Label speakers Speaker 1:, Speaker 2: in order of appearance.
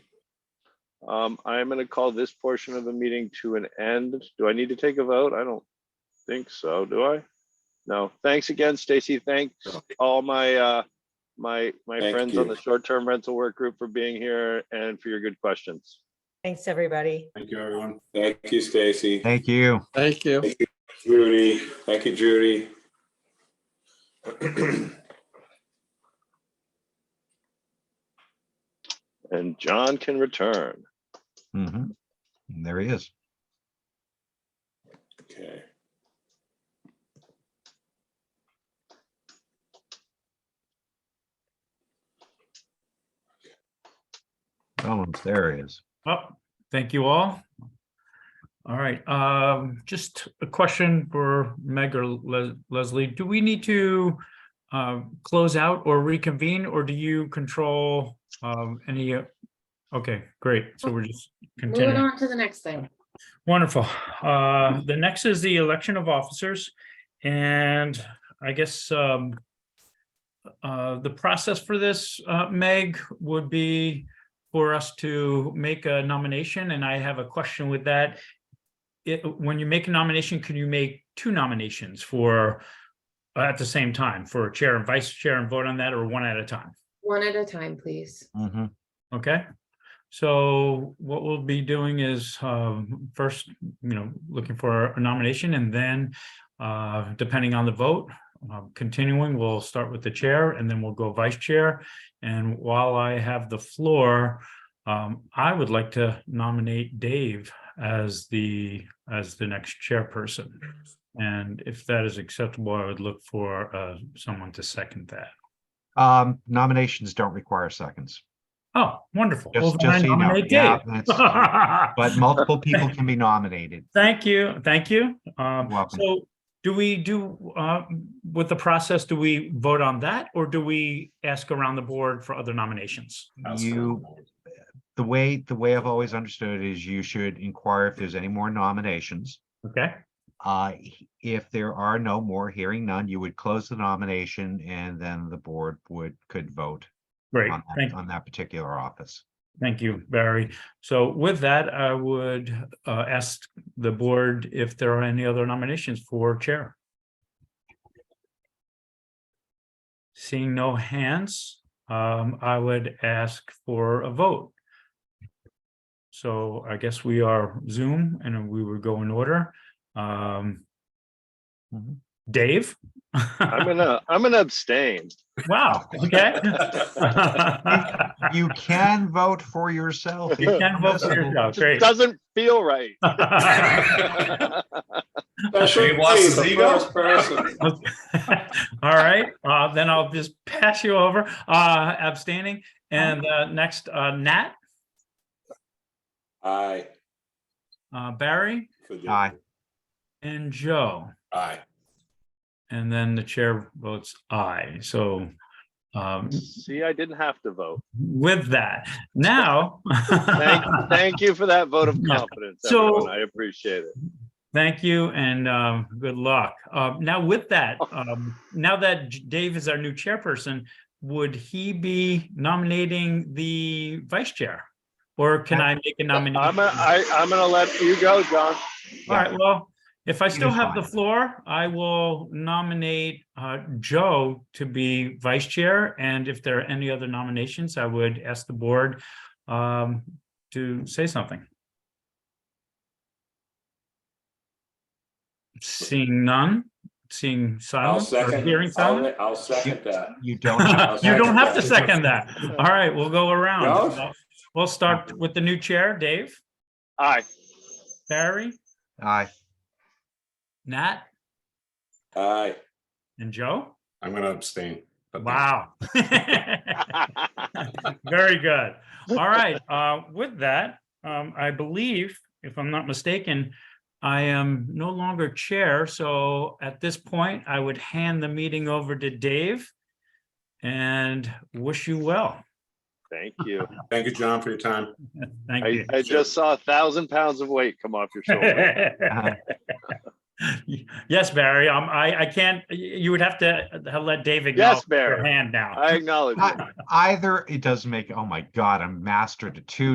Speaker 1: Um, I'm gonna call this portion of the meeting to an end. Do I need to take a vote? I don't think so, do I? No, thanks again, Stacy. Thanks all my, uh, my, my
Speaker 2: Thank
Speaker 1: friends on
Speaker 2: you.
Speaker 1: the short-term rental work group for being here and for your good questions.
Speaker 3: Thanks, everybody.
Speaker 4: Thank you, everyone.
Speaker 2: Thank you, Stacy.
Speaker 5: Thank you.
Speaker 6: Thank you.
Speaker 2: Judy, thank you, Judy.
Speaker 1: And John can return.
Speaker 5: Mhm. And There he is.
Speaker 2: Okay.
Speaker 5: Almost there he is.
Speaker 7: Well, thank you all. All right, um, just a question for Meg or Les- Leslie. Do we need to um, close out or reconvene, or do you control um, any? uh, Okay, great. So we're just
Speaker 8: Moving
Speaker 7: continuing.
Speaker 8: on to the next thing.
Speaker 7: Wonderful. Uh, The next is the election of officers. And I guess um, uh, the process for this, uh, Meg, would be for us to make a nomination, and I have a question with that. It- When you make a nomination, can you make two nominations for, at the same time, for chair and vice chair and vote on that, or one at a time?
Speaker 8: One at a time, please.
Speaker 5: Mhm.
Speaker 7: Okay, so what we'll be doing is um, first, you know, looking for a nomination and then uh, depending on the vote, uh, continuing, we'll start with the chair and then we'll go vice chair. And while I have the floor, um, I would like to nominate Dave as the, as the next chairperson. And if that is acceptable, I would look for uh, someone to second that.
Speaker 5: Um, nominations don't require seconds.
Speaker 7: Oh, wonderful. Well,
Speaker 5: Just,
Speaker 7: then I
Speaker 5: just so you know.
Speaker 7: nominate
Speaker 5: Yeah,
Speaker 7: Dave.
Speaker 5: that's- But multiple people can be nominated.
Speaker 7: Thank you, thank you. Um,
Speaker 5: You're welcome.
Speaker 7: so do we do, uh, with the process, do we vote on that or do we ask around the board for other nominations?
Speaker 5: You, the way, the way I've always understood is you should inquire if there's any more nominations.
Speaker 7: Okay,
Speaker 5: Uh, h- if there are no more, hearing none, you would close the nomination and then the board would, could vote
Speaker 7: great.
Speaker 5: on, that-
Speaker 7: Thank,
Speaker 5: on that particular office.
Speaker 7: thank you, Barry. So with that, I would, uh, ask the board if there are any other nominations for chair. Seeing no hands, um, I would ask for a vote. So I guess we are Zoom and we would go in order. Um,
Speaker 5: Mhm.
Speaker 7: Dave?
Speaker 1: I'm gonna, I'm gonna abstain.
Speaker 7: Wow, okay.
Speaker 5: You can vote for yourself.
Speaker 7: You can vote for yourself,
Speaker 1: Just
Speaker 7: great.
Speaker 1: doesn't feel right.
Speaker 2: Special
Speaker 4: He wants
Speaker 2: case,
Speaker 4: his
Speaker 2: the
Speaker 4: ego.
Speaker 2: first person.
Speaker 7: Okay. All right, uh, then I'll just pass you over, uh, abstaining. And, uh, next, uh, Nat,
Speaker 2: Aye.
Speaker 7: uh, Barry
Speaker 5: Aye.
Speaker 7: and Joe.
Speaker 2: Aye.
Speaker 7: And then the chair votes aye. So, um,
Speaker 1: See, I didn't have to vote.
Speaker 7: with that, now.
Speaker 1: Thank, thank you for that vote of
Speaker 7: Yeah.
Speaker 1: confidence,
Speaker 7: So-
Speaker 1: everyone. I appreciate it.
Speaker 7: Thank you and um, good luck. Uh, Now with that, um, now that J- Dave is our new chairperson, would he be nominating the vice chair? Or can I make a
Speaker 1: I'm,
Speaker 7: nomination?
Speaker 1: gonna- I, I'm gonna let you go, John.
Speaker 7: All right, well, if I still
Speaker 5: You're
Speaker 7: have the
Speaker 5: fine.
Speaker 7: floor, I will nominate uh, Joe to be vice chair. And if there are any other nominations, I would ask the board um, to say something. Seeing none, seeing
Speaker 2: I'll
Speaker 7: silence or
Speaker 2: second.
Speaker 7: hearing silence.
Speaker 2: I'll- I'll second that.
Speaker 5: You don't. have to
Speaker 7: You don't have to
Speaker 2: second
Speaker 7: second that. All right, we'll go
Speaker 2: No?
Speaker 7: around. We'll start with the new chair, Dave,
Speaker 1: Aye.
Speaker 7: Barry,
Speaker 5: Aye.
Speaker 7: Nat,
Speaker 2: Aye.
Speaker 7: and Joe.
Speaker 4: I'm gonna abstain. but-
Speaker 7: Wow. Very good. All right. Uh, with that, um, I believe, if I'm not mistaken, I am no longer chair. So at this point, I would hand the meeting over to Dave and wish you well.
Speaker 1: Thank you.
Speaker 4: Thank you, John, for your time.
Speaker 7: Thank
Speaker 1: I,
Speaker 7: you.
Speaker 1: I just saw a thousand pounds of weight come off your shoulder.
Speaker 7: Yes, Barry, um, I, I can't, y- you would have to uh, let David.
Speaker 1: Yes,
Speaker 7: know your
Speaker 1: Barry.
Speaker 7: Hand now.
Speaker 1: I acknowledge it.
Speaker 5: Either it doesn't make, oh my God, I'm master to two